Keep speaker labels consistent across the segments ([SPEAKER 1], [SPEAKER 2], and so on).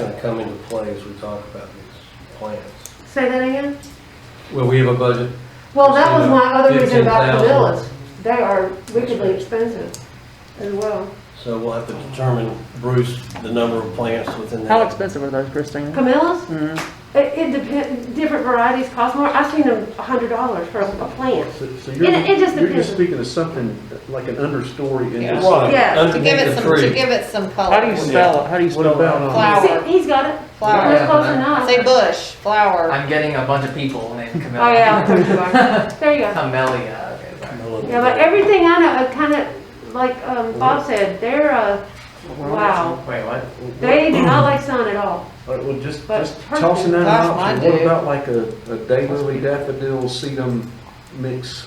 [SPEAKER 1] gonna come into play as we talk about these plans.
[SPEAKER 2] Say that again?
[SPEAKER 1] Well, we have a budget,
[SPEAKER 2] Well, that was my other reason about the
[SPEAKER 1] 15,000.
[SPEAKER 2] villas. They are wickedly expensive as well.
[SPEAKER 1] so we'll have to determine, Bruce, the number of plants within
[SPEAKER 3] How
[SPEAKER 1] that.
[SPEAKER 3] expensive are those, Christina?
[SPEAKER 2] Camellas,
[SPEAKER 3] Mhm.
[SPEAKER 2] it, it depends, different varieties cost more. I've seen them a hundred dollars for a plant.
[SPEAKER 4] So so you're,
[SPEAKER 2] It- it just
[SPEAKER 4] you're
[SPEAKER 2] depends.
[SPEAKER 4] just speaking of something like an understory in this.
[SPEAKER 1] Right,
[SPEAKER 2] Yeah. To
[SPEAKER 5] To give
[SPEAKER 1] underneath
[SPEAKER 5] it
[SPEAKER 1] the
[SPEAKER 5] some, to
[SPEAKER 1] tree.
[SPEAKER 5] give it some color.
[SPEAKER 3] How do you spell, how do you
[SPEAKER 4] What
[SPEAKER 3] spell
[SPEAKER 4] about um,
[SPEAKER 3] that?
[SPEAKER 4] on-
[SPEAKER 5] Flower.
[SPEAKER 2] See, he's got it.
[SPEAKER 5] Flower.
[SPEAKER 2] That's close
[SPEAKER 6] Yeah.
[SPEAKER 2] enough.
[SPEAKER 5] Say bush, flower.
[SPEAKER 6] I'm getting a bunch of people named Camellia.
[SPEAKER 2] Oh, yeah, there you are. There you go.
[SPEAKER 6] Camellia, okay, sorry.
[SPEAKER 2] Yeah, but everything I know, kind of, like, um, Bob said, they're, uh, wow.
[SPEAKER 6] Wait, what?
[SPEAKER 2] They do not like sun at all.
[SPEAKER 4] Like, Well, just,
[SPEAKER 2] But
[SPEAKER 4] just tossing that
[SPEAKER 5] That's
[SPEAKER 4] out,
[SPEAKER 5] my
[SPEAKER 4] what
[SPEAKER 5] dude.
[SPEAKER 4] about like a, a daylily daffodil sedum mix?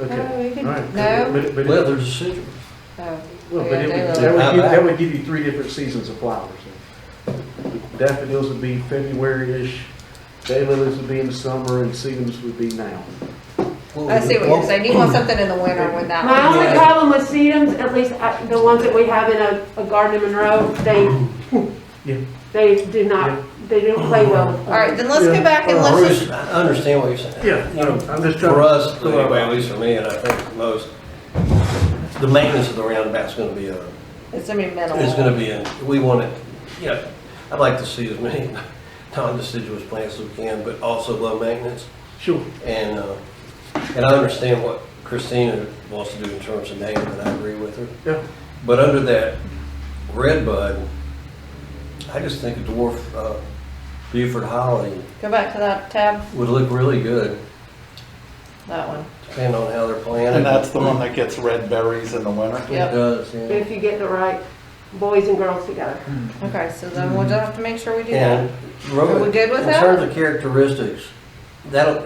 [SPEAKER 4] Okay,
[SPEAKER 5] No, you
[SPEAKER 4] all
[SPEAKER 5] can-
[SPEAKER 4] right.
[SPEAKER 5] No?
[SPEAKER 4] But, it- but, it-
[SPEAKER 1] Well, there's a decision.
[SPEAKER 5] No.
[SPEAKER 4] well, but
[SPEAKER 5] Oh, Yeah,
[SPEAKER 4] it
[SPEAKER 5] daylily.
[SPEAKER 4] would- that would,
[SPEAKER 1] How
[SPEAKER 4] give- that
[SPEAKER 1] about-
[SPEAKER 4] would give you three different seasons of flowers. Daffodils would be February-ish, daylilies would be in the summer, and sedums would be now.
[SPEAKER 5] I see what you're saying. You want something in the winter when that.
[SPEAKER 2] My only
[SPEAKER 5] one's-
[SPEAKER 2] problem with sedums, at least I- the ones that we have in a, a garden in Monroe, they,
[SPEAKER 4] Yeah.
[SPEAKER 2] they do not, they don't play well. with
[SPEAKER 5] All right,
[SPEAKER 2] them.
[SPEAKER 5] then let's
[SPEAKER 4] Yeah.
[SPEAKER 5] go back and let's just,
[SPEAKER 1] Bruce, I understand what you're saying.
[SPEAKER 4] Yeah,
[SPEAKER 1] You know,
[SPEAKER 4] I'm just trying.
[SPEAKER 1] For us,
[SPEAKER 4] to-
[SPEAKER 1] anyway, at least for me, and I think most, the maintenance of the roundabout's gonna be a,
[SPEAKER 5] it's gonna be minimal.
[SPEAKER 1] It's gonna be, a- we want it, you know, I'd like to see as many non-deciduous plants as we can, but also low maintenance.
[SPEAKER 4] Sure.
[SPEAKER 1] And, uh, and I understand what Christina wants to do in terms of name, and I agree with her.
[SPEAKER 4] Yeah.
[SPEAKER 1] But under that red bud, I just think a dwarf uh, Buford Holly
[SPEAKER 5] Go back to that tab,
[SPEAKER 1] would look really good,
[SPEAKER 5] that one.
[SPEAKER 1] depending on how they're planted.
[SPEAKER 7] And that's the one that gets red berries in the winter?
[SPEAKER 1] It
[SPEAKER 5] Yep.
[SPEAKER 1] does, yeah.
[SPEAKER 2] If you get the right boys and girls together.
[SPEAKER 5] Okay, so then we'll just have to make sure we do that.
[SPEAKER 1] And. Rowan,
[SPEAKER 5] Are we good with
[SPEAKER 1] In
[SPEAKER 5] that?
[SPEAKER 1] terms of characteristics, that'll,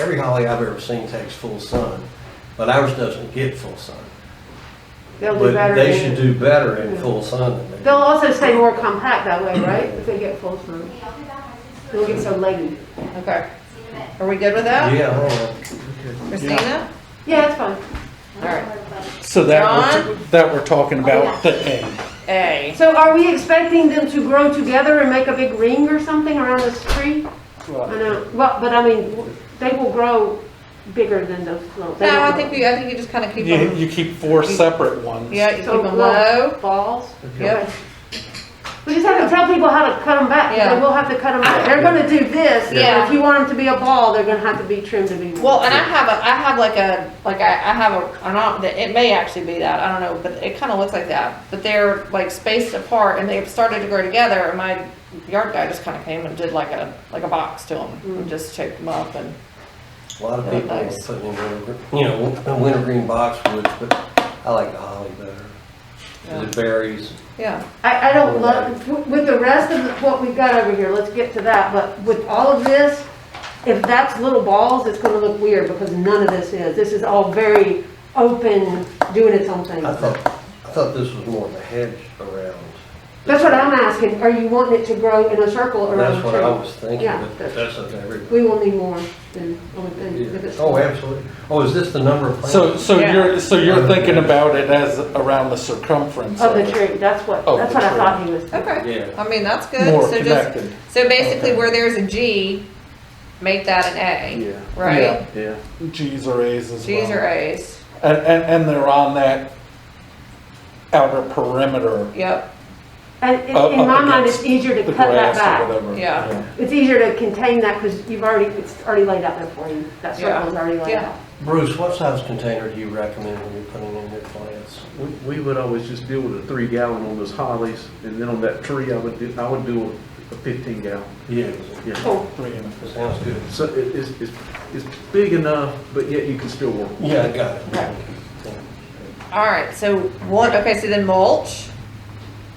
[SPEAKER 1] every holly I've ever seen takes full sun, but ours doesn't get full sun.
[SPEAKER 2] They'll do
[SPEAKER 1] But
[SPEAKER 2] better.
[SPEAKER 1] they
[SPEAKER 2] than-
[SPEAKER 1] should do better in full sun than they
[SPEAKER 2] They'll also stay more compact that way, right? If they get full sun. They won't get so leggy.
[SPEAKER 5] Okay. Are we good with that?
[SPEAKER 1] Yeah, I know.
[SPEAKER 5] Christina?
[SPEAKER 2] Yeah, it's fine.
[SPEAKER 5] All right.
[SPEAKER 8] So that, we're that we're talking about the A.
[SPEAKER 5] A.
[SPEAKER 2] So are we expecting them to grow together and make a big ring or something around this tree? I know, well, but I mean, they will grow bigger than those little. they
[SPEAKER 5] No, I
[SPEAKER 2] will
[SPEAKER 5] think you, I think you just kind of keep
[SPEAKER 8] You,
[SPEAKER 5] them,
[SPEAKER 8] you keep four separate ones.
[SPEAKER 5] yeah, you keep
[SPEAKER 2] So
[SPEAKER 5] them low.
[SPEAKER 2] little balls?
[SPEAKER 5] Yep.
[SPEAKER 2] Okay. We just have to tell people how to cut them back,
[SPEAKER 5] Yeah.
[SPEAKER 2] because we'll have to cut them back. They're gonna do this, and
[SPEAKER 5] Yeah.
[SPEAKER 2] if you want them to be a ball, they're gonna have to be trimmed to be. one.
[SPEAKER 5] Well, and I have a, I have like a, like I, I have a, or not, that- it may actually be that, I don't know, but it kind of looks like that. But they're like spaced apart and they've started to grow together and my yard guy just kind of came and did like a, like a box to them and just shaped them up and,
[SPEAKER 1] a lot of
[SPEAKER 5] They're
[SPEAKER 1] people are
[SPEAKER 5] nice.
[SPEAKER 1] putting in wintergreen, you know, wintergreen boxwoods, but I like the holly better. 'cause
[SPEAKER 5] Yeah.
[SPEAKER 1] It berries.
[SPEAKER 5] yeah.
[SPEAKER 2] I, I don't love, with the rest of what we've got over here, let's get to that, but with all of this, if that's little balls, it's gonna look weird, because none of this is. This is all very open, doing its own thing.
[SPEAKER 1] I thought, I thought this was more of a hedge around.
[SPEAKER 2] That's what I'm asking, are you wanting it to grow in a circle around
[SPEAKER 1] That's what I
[SPEAKER 2] the
[SPEAKER 1] was thinking,
[SPEAKER 2] Yeah.
[SPEAKER 1] but that's up to everybody.
[SPEAKER 2] tree? We will need more than, only thing if it's-
[SPEAKER 1] Oh, absolutely. Oh, is this the number of plants?
[SPEAKER 8] So, so
[SPEAKER 5] Yeah.
[SPEAKER 8] you're, so you're thinking about it as around the circumference
[SPEAKER 2] Of
[SPEAKER 8] of
[SPEAKER 2] the
[SPEAKER 8] it,
[SPEAKER 2] tree, that's what,
[SPEAKER 8] Of
[SPEAKER 2] that's
[SPEAKER 8] the
[SPEAKER 2] what I
[SPEAKER 8] tree.
[SPEAKER 2] thought he was.
[SPEAKER 8] Uh,
[SPEAKER 5] Okay.
[SPEAKER 1] Yeah.
[SPEAKER 5] I mean, that's good.
[SPEAKER 8] more
[SPEAKER 5] So just,
[SPEAKER 8] connected.
[SPEAKER 5] so basically where there's a G, make that an A,
[SPEAKER 4] Yeah,
[SPEAKER 5] right?
[SPEAKER 4] yeah.
[SPEAKER 8] G's or A's as well.
[SPEAKER 5] G's or A's,
[SPEAKER 8] And, and, and they're on that outer perimeter
[SPEAKER 5] yep,
[SPEAKER 2] And in
[SPEAKER 8] Up-
[SPEAKER 2] in
[SPEAKER 8] up
[SPEAKER 2] my mind,
[SPEAKER 8] against
[SPEAKER 2] it's easier to
[SPEAKER 8] uh, the
[SPEAKER 2] cut that
[SPEAKER 8] grass or
[SPEAKER 2] back.
[SPEAKER 8] whatever.
[SPEAKER 5] Yeah.
[SPEAKER 2] It's easier to contain that, because you've already, it's already laid out there for you. That
[SPEAKER 5] Yeah.
[SPEAKER 2] circle's already laid
[SPEAKER 5] Yeah.
[SPEAKER 2] out.
[SPEAKER 1] Bruce, what size container do you recommend when you're putting in your plants?
[SPEAKER 4] We we would always just deal with a three gallon on those hollies, and then on that tree, I would, do- I would do a fifteen gallon.
[SPEAKER 1] Yeah.
[SPEAKER 4] Yeah,
[SPEAKER 2] Cool.
[SPEAKER 8] Three and a half.
[SPEAKER 1] Sounds good.
[SPEAKER 4] so it- it's, it's, it's big enough, but yet you can still work.
[SPEAKER 1] Yeah, I got
[SPEAKER 5] Right.
[SPEAKER 1] it.
[SPEAKER 5] All right, so one, okay, so then mulch.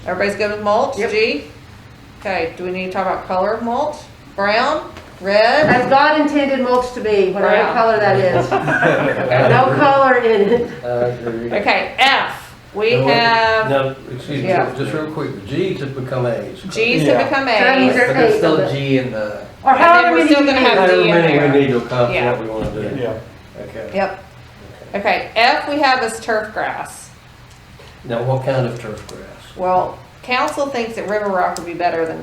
[SPEAKER 5] Everybody's good with mulch?
[SPEAKER 2] Yep.
[SPEAKER 5] G? Okay, do we need to talk about color of mulch? Brown, red?
[SPEAKER 2] As God intended mulch to be, whatever
[SPEAKER 5] Brown.
[SPEAKER 2] color that is. No color in it.
[SPEAKER 1] I agree.
[SPEAKER 5] Okay, F, we
[SPEAKER 1] Now, what-
[SPEAKER 5] have,
[SPEAKER 1] Now, excuse me,
[SPEAKER 5] Yeah.
[SPEAKER 1] just real quick, G's have become A's.
[SPEAKER 5] G's have
[SPEAKER 8] Yeah.
[SPEAKER 5] become
[SPEAKER 2] So these
[SPEAKER 5] A's.
[SPEAKER 2] are-
[SPEAKER 6] But there's still a G in the,
[SPEAKER 2] Or
[SPEAKER 5] And then
[SPEAKER 2] however
[SPEAKER 5] we're
[SPEAKER 2] many
[SPEAKER 5] still
[SPEAKER 2] you
[SPEAKER 5] gonna
[SPEAKER 2] use.
[SPEAKER 5] have-
[SPEAKER 1] However
[SPEAKER 5] D in
[SPEAKER 1] many
[SPEAKER 5] there.
[SPEAKER 1] we need to accomplish
[SPEAKER 5] Yeah.
[SPEAKER 1] what we want to do.
[SPEAKER 8] Yeah.
[SPEAKER 1] Okay.
[SPEAKER 5] Yep. Okay, F we have is turf grass.
[SPEAKER 1] Now, what kind of turf grass?
[SPEAKER 5] Well, council thinks that River Rock would be better than